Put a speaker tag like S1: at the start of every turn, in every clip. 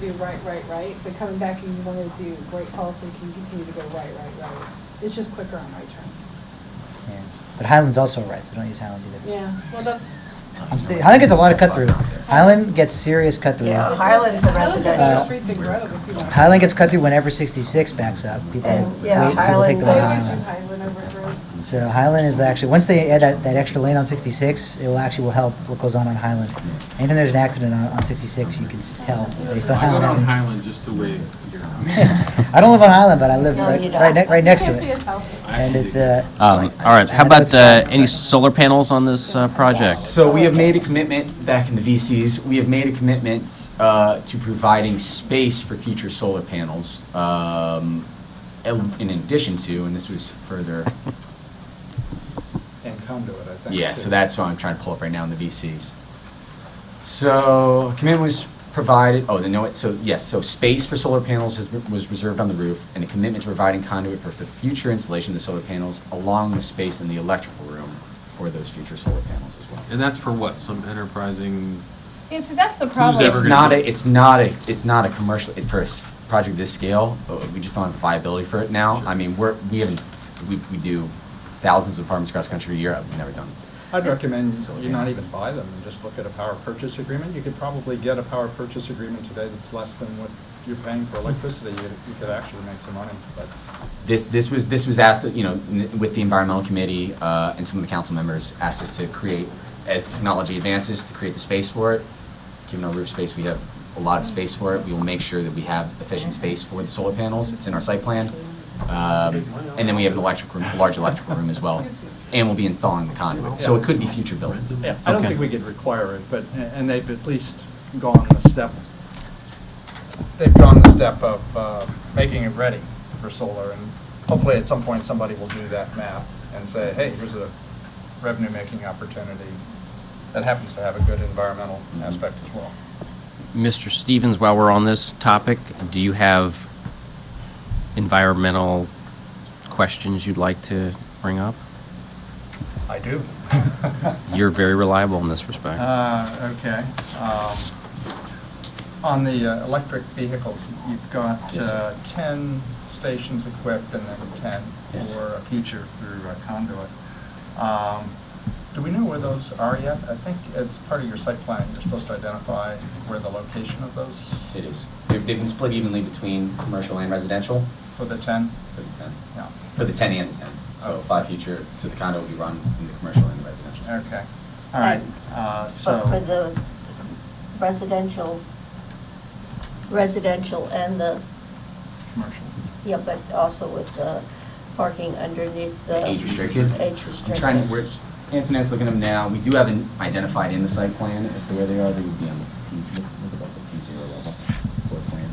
S1: do right, right, right, but coming back and you wanna do Great Falls, so you can continue to go right, right, right. It's just quicker on right turns.
S2: Yeah. But Highland's also a right, so don't use Highland either.
S1: Yeah, well, that's.
S2: I'm th- Highland gets a lot of cut through.
S3: That's why it's not there.
S2: Highland gets serious cut through.
S3: Yeah, Highland's a
S2: residential.
S1: Street than Grove, if you want.
S2: Highland gets cut through whenever 66 backs up. People,
S3: And, yeah,
S2: wait, people take
S3: Highland
S2: the
S1: They
S2: long
S3: goes-
S1: always do
S2: Highland.
S1: Highland over Grove.
S2: So Highland is uh, actually, once they add that, that extra lane on 66, it will actually will help what goes on on Highland. Anytime there's an accident on, on 66, you can s- tell based on
S4: I go down
S2: Highland.
S4: Highland just to wave. here.
S2: I don't live on Highland, but I live
S3: No,
S2: right,
S3: you
S2: right, ne-
S3: don't.
S2: right next
S1: You
S2: to
S1: can't see
S2: it.
S1: his house.
S4: I
S2: And
S4: actually
S2: it's,
S4: dig
S2: uh.
S4: it.
S5: Um, all right, how
S2: I know
S5: about,
S2: it's bad.
S5: uh, any solar panels on this, uh, project?
S3: So
S6: So we have made a commitment back in the VCs, we have made a commitment uh, to providing space for future solar panels. um, el- In addition to, and this was further,
S7: And conduit, I think.
S6: yeah, so
S7: too.
S6: that's what I'm trying to pull up right now in the VCs. So commitment was provided, oh, then no, it, so, yes, so space for solar panels has been- was reserved on the roof and a commitment to providing conduit for the future installation of the solar panels along with space in the electrical room for those future solar panels as well.
S4: And that's for what, some enterprising,
S1: And see, that's the
S4: Who's
S1: problem.
S4: ever
S6: It's
S4: gonna
S6: not
S4: do
S6: a,
S4: it.
S6: it's not a, it's not a commercial, it- for a s- project this scale, uh, we just don't have the viability for it now. I mean, we're, we haven't, we, we do thousands of apartments across the country a year, I've never done.
S7: I'd recommend
S6: Solar
S7: you not
S6: panels.
S7: even buy them, and just look at a power purchase agreement. You could probably get a power purchase agreement today that's less than what you're paying for electricity. You you could actually make some money, but
S6: This, this was, this was asked, you know, n- with the environmental committee, uh, and some of the council members asked us to create, as technology advances, to create the space for it. Given our roof space, we have a lot of space for it. We will make sure that we have efficient space for the solar panels. It's in our site plan. Um, and then we have an electric room, a large electrical room as well. And we'll be installing the conduit. So it could be future building.
S7: Yeah, I don't
S5: Okay.
S7: think we could require it, but, and they've at least gone the step, they've gone the step of uh, making it ready for solar, and hopefully at some point, somebody will do that math and say, hey, here's a revenue-making opportunity that happens to have a good environmental aspect as well.
S5: Mr. Stevens, while we're on this topic, do you have environmental questions you'd like to bring up?
S7: I do.
S5: You're very reliable in this respect.
S7: Uh, okay. Um, On the uh, electric vehicles, you've got
S6: Yes, sir.
S7: uh, 10 stations equipped and then 10
S6: Yes.
S7: for a future through uh, conduit. Um, Do we know where those are yet? I think it's part of your site plan, you're supposed to identify where the location of those
S6: It is. They've, they've been split evenly between commercial and residential
S7: for the 10?
S6: for the ten,
S7: Yeah,
S6: for the ten and the ten. So five future, so the condo will be run in the commercial and the residential. space.
S7: okay, all right,
S3: And-
S7: uh, so.
S3: But for the residential, residential and the,
S7: Commercial.
S3: yeah, but also with the parking underneath the.
S6: Age restricted.
S3: Age
S6: I'm
S3: restricted.
S6: trying to, we're, Antonette's looking at them now. We do have an identified in the site plan as to where they are. They would be on the P, look look at the P zero level floor plan.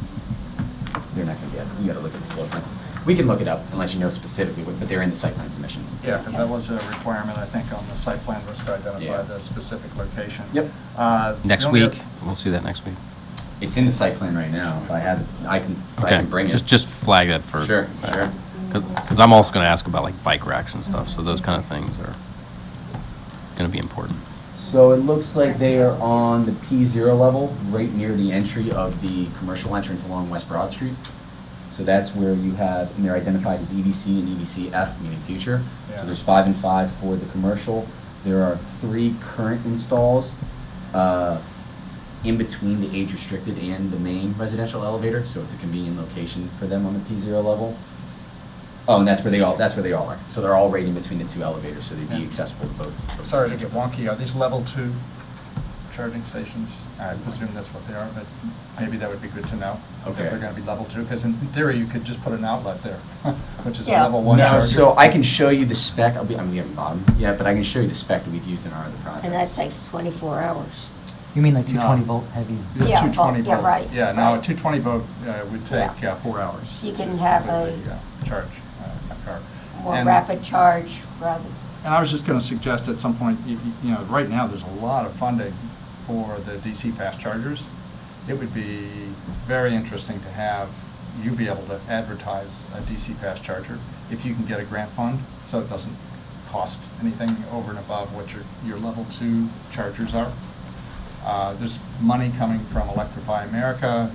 S6: They're not gonna be, at- you gotta look at the floor plan. We can look it up and let you know specifically, what- but they're in the site plan submission.
S7: Yeah, because that was a requirement, I think, on the site plan was to identify
S6: Yeah.
S7: the specific location.
S6: Yep.
S7: Uh, the
S5: Next
S7: only
S5: week,
S7: oth-
S5: we'll see that next week.
S6: It's in the site plan right now. If I had, it, I can, I
S5: Okay,
S6: can bring it.
S5: just, just flag that for.
S6: Sure, sure.
S5: Because I'm also going to ask about like bike racks and stuff, so those kind of things are going to be important.
S6: So it looks like they are on the P zero level, right near the entry of the commercial entrance along West Broad Street. So that's where you have, and they're identified as EDC and E EDCF, meaning future.
S7: Yeah.
S6: So there's five and five for the commercial. There are three current installs, uh, in between the age restricted and the main residential elevator, so it's a convenient location for them on the P zero level. Oh, and that's where they all, that's where they all are. So they're all right in between the two elevators, so they'd be
S7: Yeah.
S6: accessible to both. both
S7: Sorry to
S6: stations.
S7: get wonky, are these level two charging stations? I presume that's what they are, but maybe that would be good to know.
S6: Okay.
S7: If they're going to be level two, because in theory, you could just put an outlet there, which is a
S3: Yeah.
S7: level one
S6: No,
S7: charger.
S6: so I can show you the spec, I'll be, I'm getting bottom, yeah, but I can show you the spec that we've used in our other projects.
S3: And that takes 24 hours.
S2: You mean like 220
S7: No.
S2: volt heavy?
S7: The
S3: Yeah,
S7: 220
S3: oh, yeah,
S7: volt.
S3: right,
S7: Yeah, no, a
S3: right.
S7: 220 volt uh, would take
S3: Yeah.
S7: uh, four hours.
S3: You
S7: to
S3: can have
S7: completely,
S3: a-
S7: uh, Charge uh, a car.
S3: More
S7: And-
S3: rapid charge rather.
S7: And I was just going to suggest at some point, you you- you know, right now, there's a lot of funding for the DC fast chargers. It would be very interesting to have you be able to advertise a DC fast charger if you can get a grant fund, so it doesn't cost anything over and above what your, your level two chargers are. Uh, There's money coming from Electrify America,